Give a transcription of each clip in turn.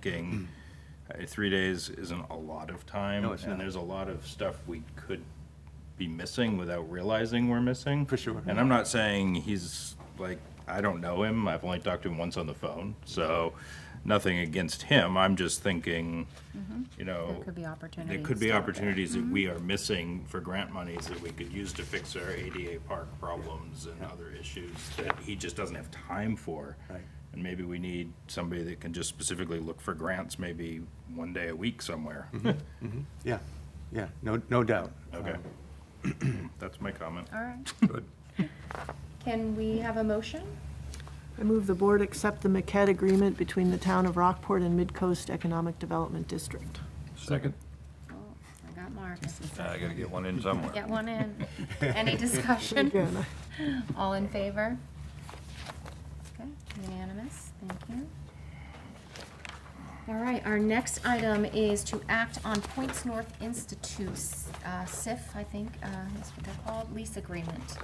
thinking, uh, three days isn't a lot of time. No, it's not. And there's a lot of stuff we could be missing without realizing we're missing. For sure. And I'm not saying he's, like, I don't know him, I've only talked to him once on the phone, so nothing against him, I'm just thinking, you know. Mm-hmm. There could be There opportunities. could be out there. opportunities that we are missing for grant monies that we could use to fix our ADA park problems and other issues that he just doesn't have time for. Right. And maybe we need somebody that can just specifically look for grants, maybe one day a week somewhere. Mm-hmm. Yeah, yeah, no, no doubt. Okay. Um, That's my comment. All right. Can we have a motion? I move the board accept the MCAT agreement between the town of Rockport and Midcoast Economic Development District. Second. Oh, I got Marcus. uh, I gotta get one in somewhere. Get one in. Any discussion? Again, All in favor? Okay, unanimous, thank you. All right, our next item is to act on Points North Institute, uh, SIF, I think, uh, is what they're called, lease agreement.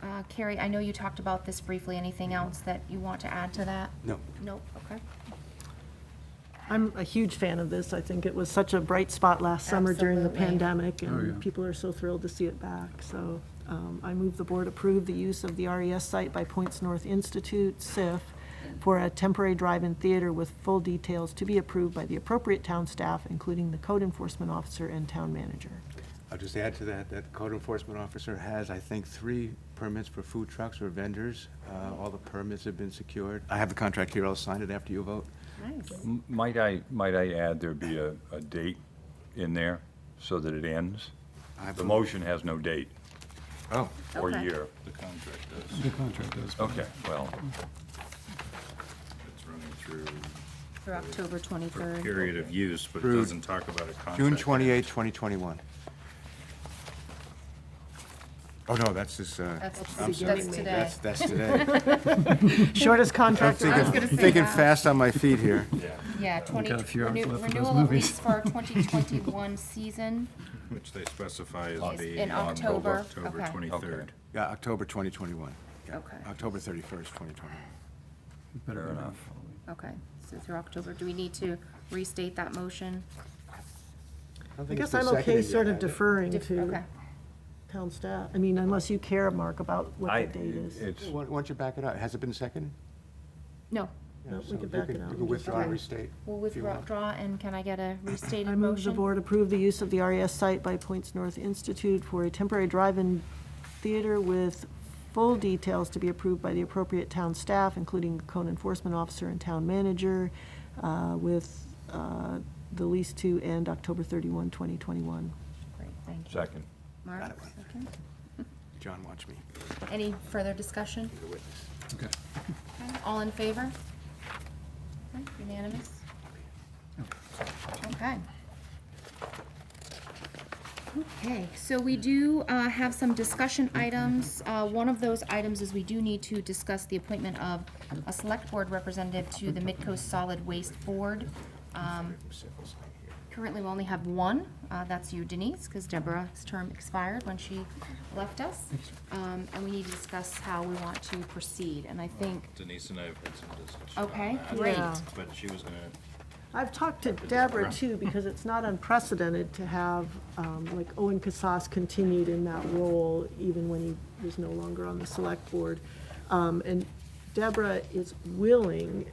Uh, Carrie, I know you talked about this briefly. Anything else that you want to add to that? No. Nope, okay. I'm a huge fan of this. I think it was such a bright spot last summer during the Absolutely. pandemic, Oh, yeah. and people are so thrilled to see it back. So um, I move the board approve the use of the RES site by Points North Institute, SIF, for a temporary drive-in theater with full details to be approved by the appropriate town staff, including the code enforcement officer and town manager. I'll just add to that, that code enforcement officer has, I think, three permits for food trucks or vendors. Uh, All the permits have been secured. I have the contract here, I'll sign it after you vote. Nice. M- Might I, might I add there'd be a, a date in there so that it ends? I The vote- motion has no date Oh, or Okay. year. The contract does, The contract does. Okay, well, it's running through Through October for a 23rd. period of use, but it Through doesn't talk about a contract. June 28, 2021. Oh, no, that's this, uh, That's, I'm sorry. that's today. That's, that's today. Shortest I'm contract. I was thinking, gonna say thinking that. fast on my feet here. Yeah, Yeah, 20, got a few hours left renew- for those renewal of movies. lease for our 2021 season. which they specify is Is the. in on October. October Okay. 23rd. Yeah, October 2021. Yeah, Okay. October 31st, 2021. fair enough. Okay, so through October, do we need to restate that motion? I guess I'm okay sort of deferring Dif- to Okay, town staff. I mean, unless you care, Mark, about I, what the date is. it's, Why why don't you back it out? Has it been seconded? no, Yeah, No, we so could you back could- it You out and could just- withdraw Okay. and restate. we'll if you want. withdraw, and can I get a I restated move the motion? board approve the use of the RES site by Points North Institute for a temporary drive-in theater with full details to be approved by the appropriate town staff, including code enforcement officer and town manager, uh, with uh, the lease to end October 31, 2021. Great, thank you. second. Mark, Got it. second. John, watch me. Any further discussion? You're a witness. Okay. Okay, All in favor? Okay, Unanimous? Okay. Okay, so we do uh, have some discussion items. Uh, One of those items is we do need to discuss the appointment of a select board representative to the Midcoast Solid Waste Board. Um, Currently, we only have one. Uh, That's you, Denise, because Deborah's term expired when she left us. Um, And we need to discuss how we want to proceed, and I think Denise and I have had some discussion Okay, on that, great. Yeah. But she was gonna I've talked to Deborah too, because it's not unprecedented to have, um, like Owen Casas continued in that role even when he was no longer on the select board. Um, and Deborah is willing,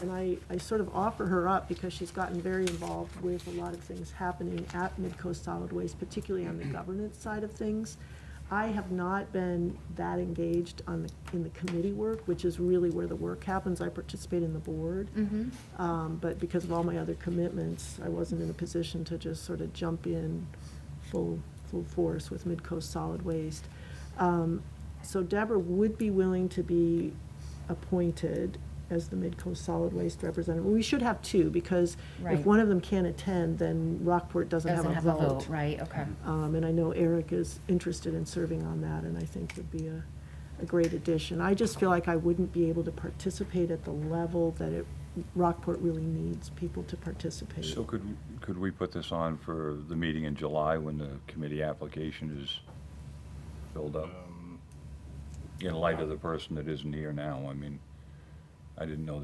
and I, I sort of offer her up because she's gotten very involved with a lot of things happening at Midcoast Solid Waste, particularly on the governance side of things. I have not been that engaged on the, in the committee work, which is really where the work happens. I participate in the board. Um, But because of all my other commitments, I wasn't in a position to just sort of jump in full, full force with Midcoast Solid Waste. Um, So Deborah would be willing to be appointed as the Midcoast Solid Waste representative. We should have two, because if Right. one of them can't attend, then Rockport doesn't have doesn't a have a vote. vote, right, okay. Um, And I know Eric is interested in serving on that, and I think would be a, a great addition. I just feel like I wouldn't be able to participate at the level that it, Rockport really needs people to participate. So could, could we put this on for the meeting in July when the committee application is Um, filled up? In light of the person that isn't here now, I mean, I didn't know that.